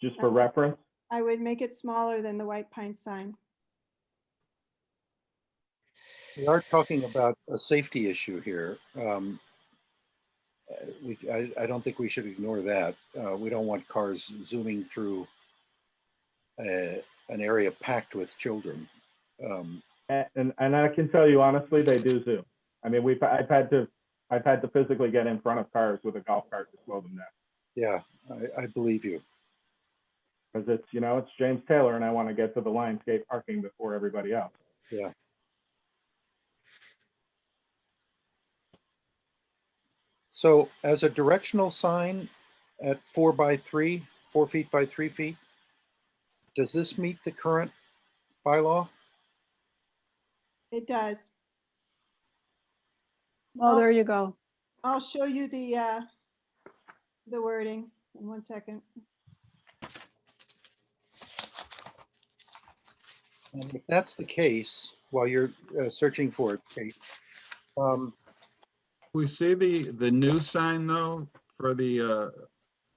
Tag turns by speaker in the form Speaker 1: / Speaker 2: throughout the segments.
Speaker 1: just for reference?
Speaker 2: I would make it smaller than the white pine sign.
Speaker 3: We are talking about a safety issue here. Um, uh, We, I, I don't think we should ignore that. Uh, we don't want cars zooming through uh, an area packed with children. Um,
Speaker 1: A- And, and I can tell you honestly, they do zoom. I mean, we've, I've had to, I've had to physically get in front of cars with a golf cart to slow them down.
Speaker 3: Yeah, I, I believe you.
Speaker 1: Because it's, you know, it's James Taylor and I want to get to the Lionsgate parking before everybody else.
Speaker 3: So as a directional sign at four by three, four feet by three feet, does this meet the current bylaw?
Speaker 2: It does.
Speaker 4: Oh, there you go.
Speaker 2: I'll show you the, uh, the wording in one second.
Speaker 3: And if that's the case, while you're uh, searching for it, Kate, um,
Speaker 5: We see the, the new sign though, for the uh,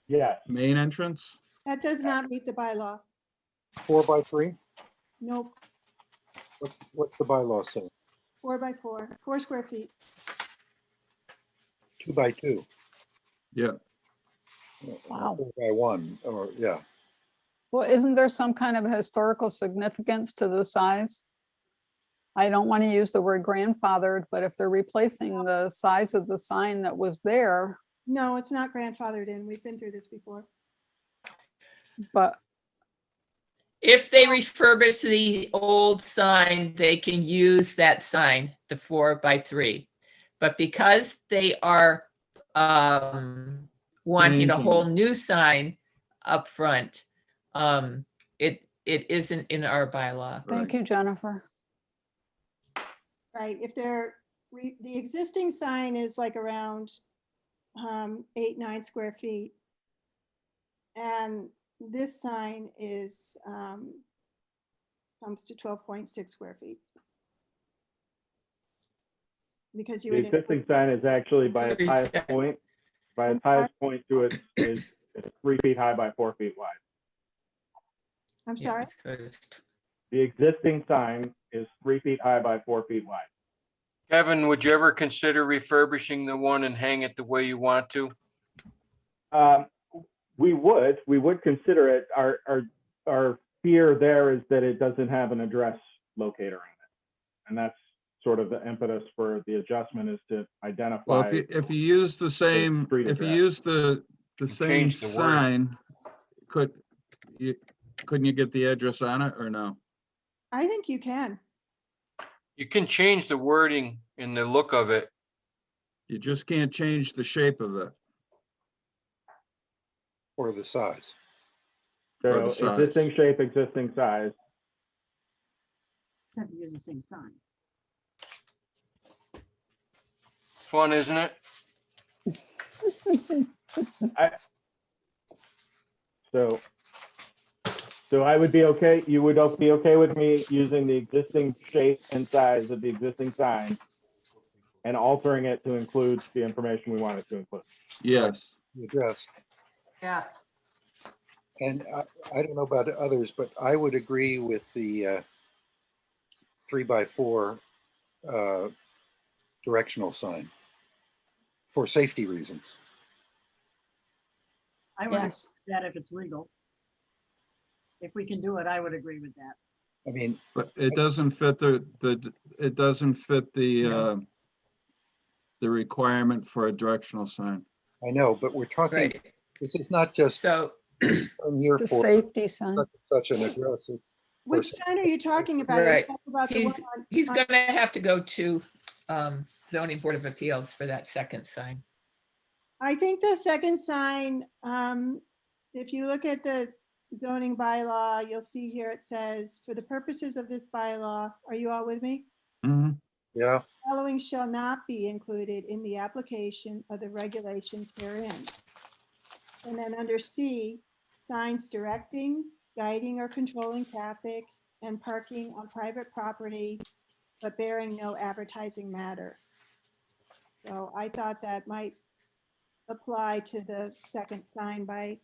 Speaker 1: Yes,
Speaker 5: main entrance.
Speaker 2: That does not meet the bylaw.
Speaker 3: four by three?
Speaker 2: Nope,
Speaker 3: What's, what's the bylaw say?
Speaker 2: four by four, four square feet.
Speaker 3: Two by two?
Speaker 5: Yeah.
Speaker 3: Or
Speaker 4: Wow.
Speaker 3: four By one, or, yeah,
Speaker 4: Well, isn't there some kind of historical significance to the size? I don't want to use the word grandfathered, but if they're replacing the size of the sign that was there,
Speaker 2: No, it's not grandfathered in. We've been through this before.
Speaker 4: but
Speaker 6: If they refurbish the old sign, they can use that sign, the four by three. But because they are um, wanting a
Speaker 5: Changing.
Speaker 6: whole new sign up front, um, it, it isn't in our bylaw.
Speaker 4: thank
Speaker 5: Right.
Speaker 4: you, Jennifer.
Speaker 2: Right, if they're, re- the existing sign is like around um, eight, nine square feet. And this sign is, um, comes to twelve point six square feet. Because you
Speaker 1: the
Speaker 2: would,
Speaker 1: existing
Speaker 2: include-
Speaker 1: sign is actually by its highest point, by its highest point to it is it's three feet high by four feet wide.
Speaker 2: I'm sorry,
Speaker 6: Yes, 'cause-
Speaker 1: The existing sign is three feet high by four feet wide.
Speaker 7: Kevin, would you ever consider refurbishing the one and hang it the way you want to?
Speaker 1: Um, we would, we would consider it. Our, our, our fear there is that it doesn't have an address locator on it. And that's sort of the impetus for the adjustment is to
Speaker 5: Well, if
Speaker 1: identify.
Speaker 5: you, if you use the same,
Speaker 1: street
Speaker 5: if you
Speaker 1: address.
Speaker 5: use the, the same
Speaker 7: Change the word.
Speaker 5: sign, could, you, couldn't you get the address on it or no?
Speaker 2: I think you can.
Speaker 7: You can change the wording and the look of it.
Speaker 5: You just can't change the shape of it.
Speaker 3: or the size.
Speaker 5: or the
Speaker 1: So
Speaker 5: size.
Speaker 1: existing shape, existing size.
Speaker 8: Have to use the same sign.
Speaker 7: Fun, isn't it?
Speaker 1: So, so I would be okay, you would be okay with me using the existing shape and size of the existing sign and altering it to include the information we wanted to include.
Speaker 5: Yes.
Speaker 3: the address.
Speaker 8: Yeah.
Speaker 3: And I, I don't know about others, but I would agree with the uh, three by four uh, directional sign for safety reasons.
Speaker 8: I would agree
Speaker 4: Yes.
Speaker 8: with that if it's legal. If we can do it, I would agree with that.
Speaker 3: I mean,
Speaker 5: But it doesn't fit the, the, it doesn't fit the, uh, the requirement for a directional sign.
Speaker 3: I know, but we're talking,
Speaker 6: Right,
Speaker 3: this is not just
Speaker 6: so
Speaker 3: I'm here for
Speaker 4: The safety sign.
Speaker 3: such such an address. It-
Speaker 2: Which sign are you talking about? Are you
Speaker 6: Right.
Speaker 2: talking about the one
Speaker 6: He's-
Speaker 2: on-
Speaker 6: he's gonna have to go to um, zoning board of appeals for that second sign.
Speaker 2: I think the second sign, um, if you look at the zoning bylaw, you'll see here it says, for the purposes of this bylaw, are you all with me?
Speaker 5: Mhm.
Speaker 3: Yeah,
Speaker 2: Following shall not be included in the application of the regulations herein. And then under C, signs directing, guiding, or controlling traffic and parking on private property, but bearing no advertising matter. So I thought that might apply to the second sign by